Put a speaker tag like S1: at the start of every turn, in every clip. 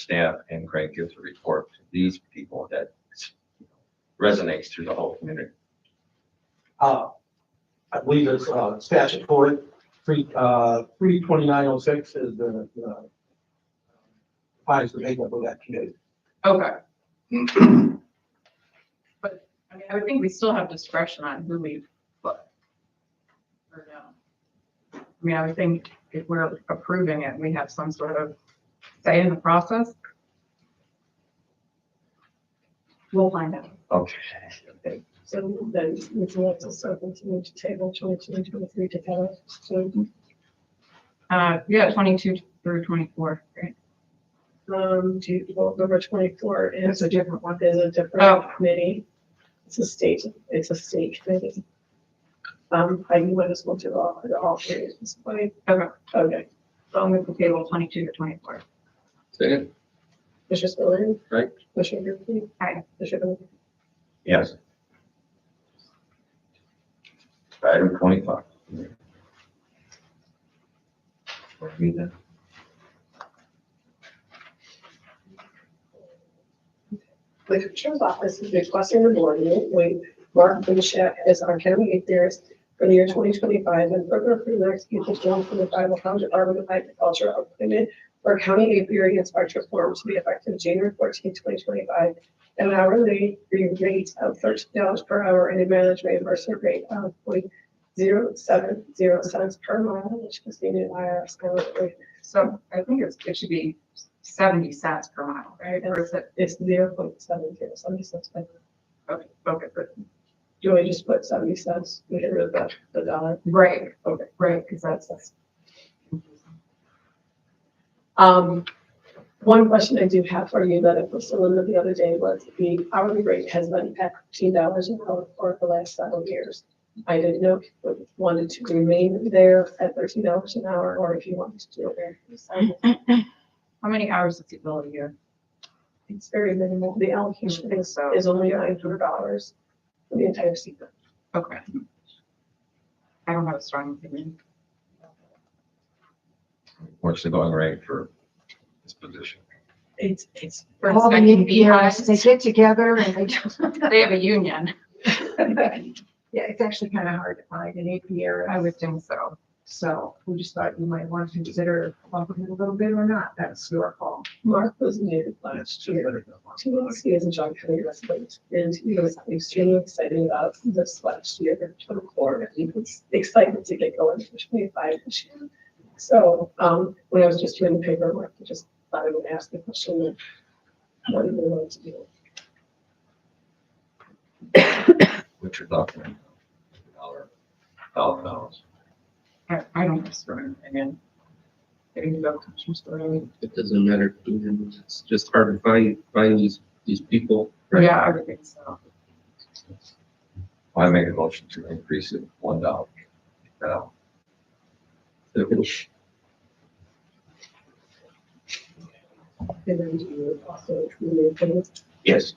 S1: staff and Craig gives a report to these people that resonates through the whole community.
S2: Uh, I believe it's, uh, statutory, three, uh, three twenty-nine oh six is the, uh, the defines the makeup of that committee.
S3: Okay. But, I mean, I would think we still have discretion on who we put. Or no? I mean, I would think if we're approving it, we have some sort of say in the process. We'll find out.
S1: Okay.
S4: So then we can also start continuing to table twenty-two and twenty-three together. So,
S3: Uh, yeah, twenty-two through twenty-four, right?
S4: um, do, you- well, number twenty-four is a different one, is
S3: Oh.
S4: a different committee. It's a state, it's a state committee. Um, I can let us go to all, to all three at this point.
S3: Okay.
S4: Okay,
S3: So I'm going to table twenty-two to twenty-four.
S1: Second?
S4: Mr. Spillier.
S1: Right.
S4: Mr. Griffin.
S3: Aye.
S4: Mr. Bennett.
S1: Yes. Item twenty-five. Or me then?
S4: The Commissioner's Office is requesting the board to appoint Mark Bishop as our county eight theorist for the year twenty twenty-five and further approve and execute the form for the Bible College Department of Agriculture appointment for county apiary inspector form to be effective January 14, twenty twenty-five. An hourly rate of thirteen dollars per hour and a mileage reimbursement rate of point zero seven zero cents per mile, which is the new IRS currently.
S3: So I think it's, it should be seventy cents per mile, right? Or is it,
S4: It's zero point seven zero, so I'm just, do
S3: okay, okay, but,
S4: you want me to just put seventy cents, We get rid of that, the dollar?
S3: right,
S4: Okay.
S3: right, because that's, that's.
S4: Um, one question I do have for you that I posted Linda the other day was the hourly rate has been at fifteen dollars an hour for the last several years. I didn't know if you wanted to remain there at thirteen dollars an hour or if you wanted to do it.
S3: How many hours does it bill a year?
S4: It's very minimal. The allocation is, is only nine hundred dollars for the entire season.
S3: Okay. I don't have a strong opinion.
S1: What's the going rate for this position?
S4: It's, it's.
S3: For
S5: All the
S3: inspecting
S5: APRs,
S3: beehives,
S5: they get together and they, do-
S3: They have a union.
S5: yeah, it's actually kind of hard to find an
S3: I
S5: APR.
S3: would think so.
S5: So we just thought you might want to consider bumping it a little bit or not. That's your call.
S4: Mark was new last year. Two months he is in John County Wrestling, and he was extremely excited about this last year, twenty-four, and he was excited to get going for twenty-five this year. So, um, when I was just doing the paperwork, I just thought I would ask the question of what do you want to do?
S1: What's your thought? on it? Dollar, dollar amounts.
S3: I, I don't have a strong opinion. Maybe you go to some sort of-
S6: it doesn't matter who it is, it's just hard to find, find these, these people.
S3: Yeah, I would think so.
S1: I make a motion to increase it one dollar. Now,
S4: And then do you also remove him?
S1: Yes.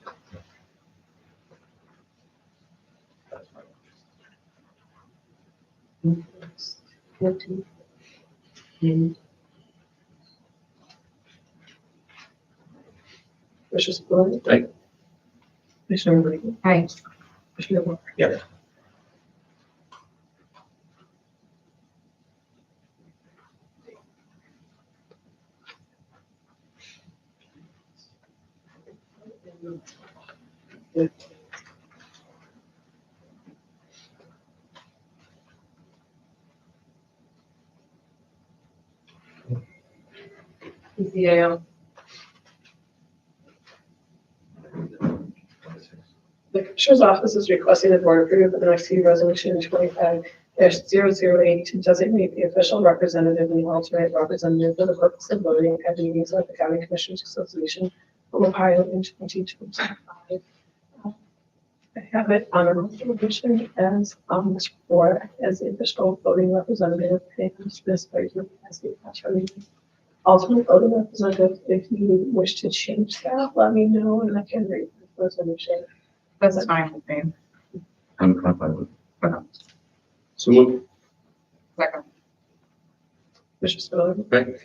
S4: Mr. Spillier?
S6: Aye.
S4: Commissioner Brady?
S3: Hey,
S4: Commissioner Walker?
S1: Yes.
S4: PCAO. The Commissioner's Office is requesting the Board approve the NXT Resolution twenty-five 8 to designate the official representative and the alternate representative for the purpose of voting at the meetings of the County Commissioners Association from Ohio in twenty twenty-five. I have it on a resolution as, um, for, as the official voting representative, and this person as the alternate ultimate voting representative, if you wish to change that, let me know and I can read the resolution.
S3: that's fine with me.
S1: I'm, I'm fine with it.
S6: So move,
S3: Second.
S4: Mr. Spiller,
S6: right,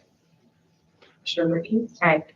S4: Mr. Ricky,
S3: Hey,